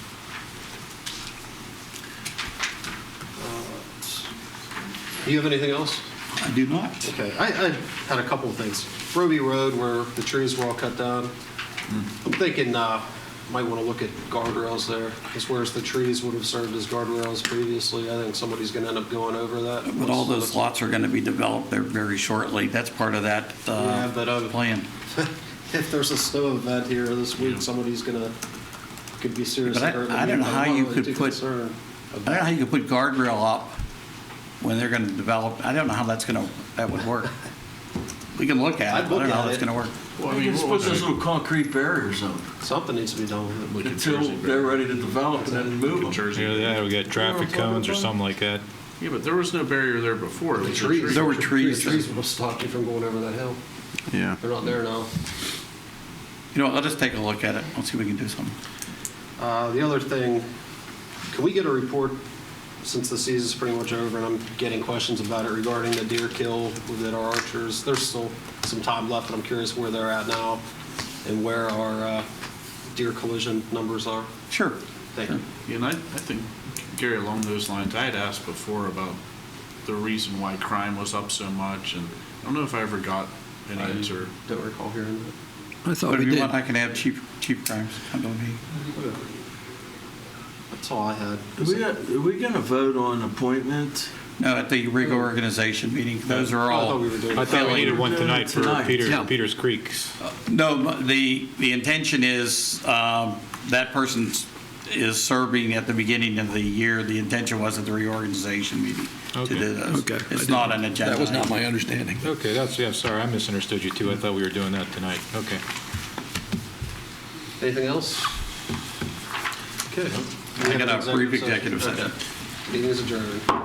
Do you have anything else? I do not. Okay, I, I had a couple of things. Roby Road, where the trees were all cut down, I'm thinking, uh, might want to look at guardrails there, because whereas the trees would have served as guardrails previously, I think somebody's going to end up going over that. But all those lots are going to be developed there very shortly. That's part of that Yeah, but, uh, uh, plan. If there's a snow event here this week, somebody's going to, could be seriously But I- hurt. I don't know how I'm you really could too put- concerned. I don't know how you could put guardrail up when they're going to develop, I don't know how that's going to, that would work. We can look at I'd it, but I look don't know at how that's it. going to work. Well, I mean, just put those little concrete barriers up Something needs to be done with it. until they're ready to develop and then move them. Jersey, yeah, we got traffic cones or something like that. Yeah, but there was no barrier there before. It was a tree. There were trees. The trees would have stopped you from going over that hill. Yeah. They're not there now. You know, what, let us take a look at it. Let's see if we can do something. Uh, The other thing, can we get a report, since the season's pretty much over and I'm getting questions about it regarding the deer kill within our archers? There's still some time left, and I'm curious where they're at now and where our uh, deer collision numbers are. Sure. Thank you. And I, I think, Gary, along those lines, I had asked before about the reason why crime was up so much, and I don't know if I ever got an answer. Don't recall hearing that. I But thought if we you did. want, I can have Chief, Chief Grimes come to me. That's all I had. Are we, gonna- are we gonna vote on appointment? No, at the rig organization meeting, those are I all. thought we were doing- I thought we needed one tonight for Tonight. Peter, Yeah. Peters Creeks. No, but the, the intention is, um, that person is serving at the beginning of the year. The intention was at the reorganization meeting to Okay. do those. Okay. I It's didn't- not an agenda. That was not item. my understanding. Okay, that's, yeah, sorry, I misunderstood you too. I thought we were doing that tonight. Okay. Anything else? Okay. We I have an got a brief session. executive session. Okay. Meeting is adjourned.